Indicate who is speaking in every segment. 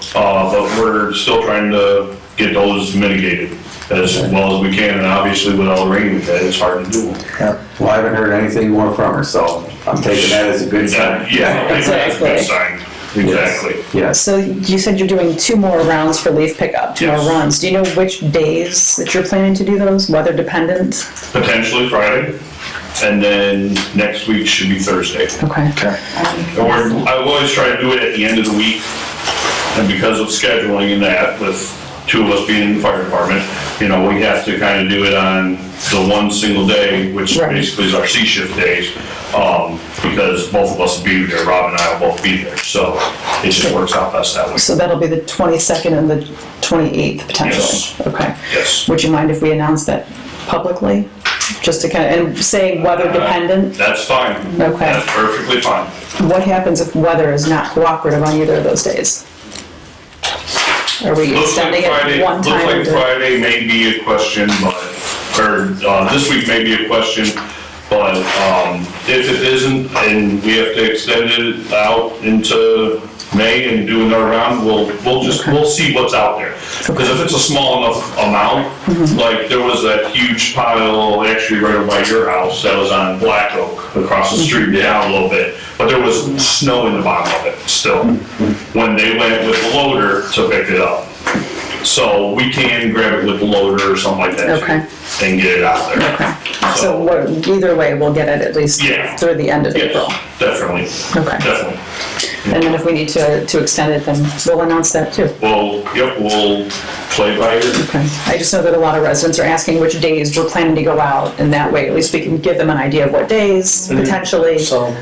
Speaker 1: So, uh, but we're still trying to get those mitigated as well as we can, and obviously with all the rain we've had, it's hard to do.
Speaker 2: Yeah, well, I haven't heard anything more from her, so I'm taking that as a good sign.
Speaker 1: Yeah, I think that's a good sign, exactly.
Speaker 2: Yes,
Speaker 3: So you said you're doing two more rounds for leaf pickup, two more
Speaker 1: Yes.
Speaker 3: runs. Do you know which days that you're planning to do those, weather dependent?
Speaker 1: Potentially Friday, and then next week should be Thursday.
Speaker 3: Okay.
Speaker 1: And we're, I always try to do it at the end of the week, and because of scheduling and that, with two of us being in the fire department, you know, we have to kind of do it on the one single day, which
Speaker 3: Right.
Speaker 1: basically is our C shift days, um, because both of us will be there, Rob and I will both be there, so it just works out best that way.
Speaker 3: So that'll be the 22nd and the 28th
Speaker 1: Yes.
Speaker 3: potentially? Okay.
Speaker 1: Yes,
Speaker 3: Would you mind if we announce that publicly? Just to kind of, and say weather dependent?
Speaker 1: that's fine.
Speaker 3: Okay.
Speaker 1: That's perfectly fine.
Speaker 3: What happens if weather is not cooperative on either of those days? Are we
Speaker 1: Looks like
Speaker 3: extending
Speaker 1: Friday-
Speaker 3: it one time?
Speaker 1: Looks
Speaker 3: into-
Speaker 1: like Friday may be a question, but, or, uh, this week may be a question, but, um, if it isn't, and we have to extend it out into May and do another round, we'll, we'll just, we'll see what's out there. Because if it's a small enough
Speaker 3: Mm-hmm.
Speaker 1: amount, like, there was that huge pile, actually right by your house, that was on Black Oak, across the street,
Speaker 3: Mm-hmm.
Speaker 1: down a little bit, but there was snow in the bottom of it still,
Speaker 3: Mm-hmm.
Speaker 1: when they went with the loader to pick it up. So we can grab it with the loader or something like that. too,
Speaker 3: Okay.
Speaker 1: And get it out there.
Speaker 3: So what- either way, we'll get it at least
Speaker 1: Yeah.
Speaker 3: through the end of April.
Speaker 1: Yes, definitely.
Speaker 3: Okay.
Speaker 1: Definitely.
Speaker 3: And then if we need to, to extend it, then we'll announce that too.
Speaker 1: Well, yep, we'll play by ear.
Speaker 3: Okay. I just know that a lot of residents are asking which days we're planning to go out, and that way at least we can give them an idea of what days potentially, so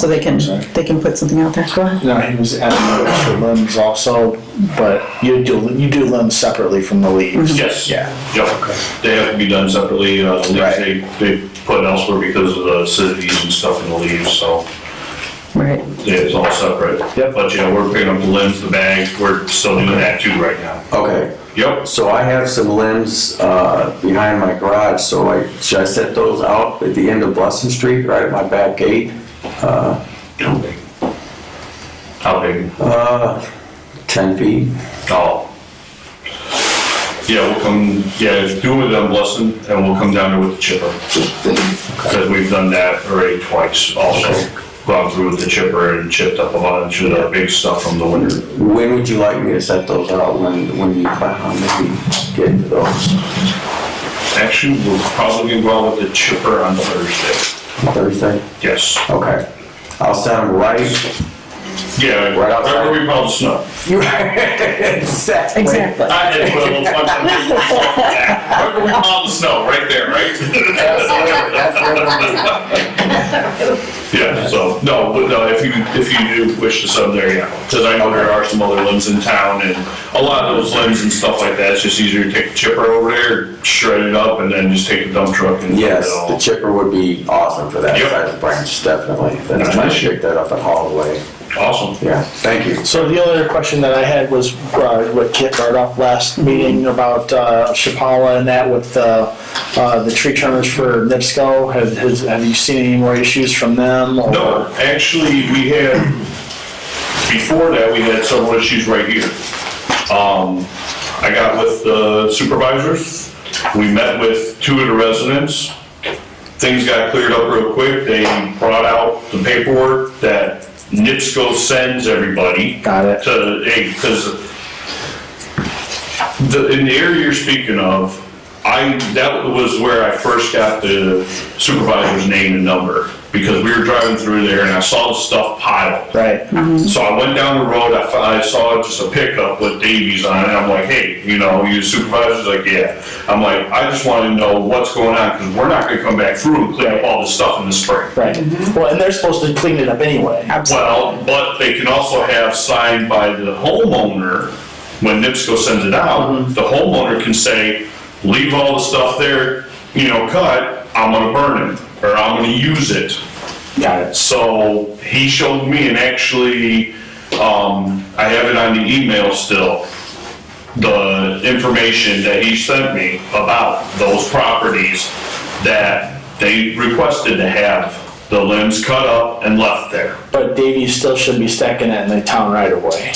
Speaker 4: So,
Speaker 3: they can,
Speaker 4: Sorry.
Speaker 3: they can put something out there. Go ahead.
Speaker 4: no, he was adding the extra limbs also, but you do, you do limbs separately from the leaves.
Speaker 1: Yes.
Speaker 4: Yeah.
Speaker 1: Yep. They have to be done separately. Uh, the leaves,
Speaker 4: Right.
Speaker 1: they, they put elsewhere because of the acidities and stuff in the leaves, so
Speaker 3: Right.
Speaker 1: it's all separate.
Speaker 4: Yep.
Speaker 1: But, you know, we're picking up the limbs, the bags, we're still doing that too right now.
Speaker 2: okay.
Speaker 1: Yep.
Speaker 2: So I have some limbs uh, behind my garage, so I, should I set those out at the end of Blessing Street, right at my back gate?
Speaker 1: How big? How big?
Speaker 2: Uh, 10 feet?
Speaker 1: Oh. Yeah, we'll come, yeah, do it on Blessing, and we'll come down there with the chipper. Because we've done that already twice also. Gone through with the chipper and chipped up a bunch of the big stuff from the winter.
Speaker 2: When would you like me to set those out, when, when you plan on maybe getting to those?
Speaker 1: Actually, we'll probably go out with the chipper on Thursday.
Speaker 2: Thursday?
Speaker 1: Yes.
Speaker 2: Okay. I'll set them right.
Speaker 1: Yeah,
Speaker 2: Right outside.
Speaker 1: wherever we pile the snow.
Speaker 2: Exactly.
Speaker 3: Exactly.
Speaker 1: I had to put a little punch on it. Wherever we pile the snow, right there, right?
Speaker 2: That's where we're-
Speaker 1: Yeah, so, no, but no, if you, if you do wish to sub there, yeah, because I know there are some other limbs in town, and a lot of those limbs and stuff like that, it's just easier to take the chipper over there, shred it up, and then just take the dump truck and.
Speaker 2: Yes, the
Speaker 1: all.
Speaker 2: chipper would be awesome for that
Speaker 1: Yep.
Speaker 2: side of the branch, definitely. Then I might
Speaker 1: Nice.
Speaker 2: pick that up and haul it away.
Speaker 1: Awesome.
Speaker 2: Yeah, thank you.
Speaker 4: So the other question that I had was uh, what Kit brought up last meeting about uh, Chapala and that with uh, uh, the tree trimmers for NIPSCO. Have, has, have you seen any more issues from them? or-
Speaker 1: No, actually, we had, before that, we had several issues right here. Um, I got with the supervisors, we met with two of the residents, things got cleared up real quick, they brought out the paperwork that NIPSCO sends everybody
Speaker 4: Got it.
Speaker 1: to, hey, because the, in the area you're speaking of, I, that was where I first got the supervisor's name and number, because we were driving through there and I saw the stuff piled.
Speaker 4: Right.
Speaker 1: So I went down the road, I, fi- I saw just a pickup with Davies on it, and I'm like, hey, you know, you supervisor's like, yeah. I'm like, I just want to know what's going on, because we're not gonna come back through and clean up all this stuff in the spring.
Speaker 4: Right. Well, and they're supposed to clean it up anyway.
Speaker 1: Well, but they can also have signed by the homeowner, when NIPSCO sends it out, the homeowner can say, leave all the stuff there, you know, cut, I'm gonna burn it, or I'm gonna use it.
Speaker 4: Got it.
Speaker 1: So he showed me, and actually, um, I have it on the email still, the information that he sent me about those properties that they requested to have the limbs cut up and left there.
Speaker 4: But Davy still should be stacking that in the town right away.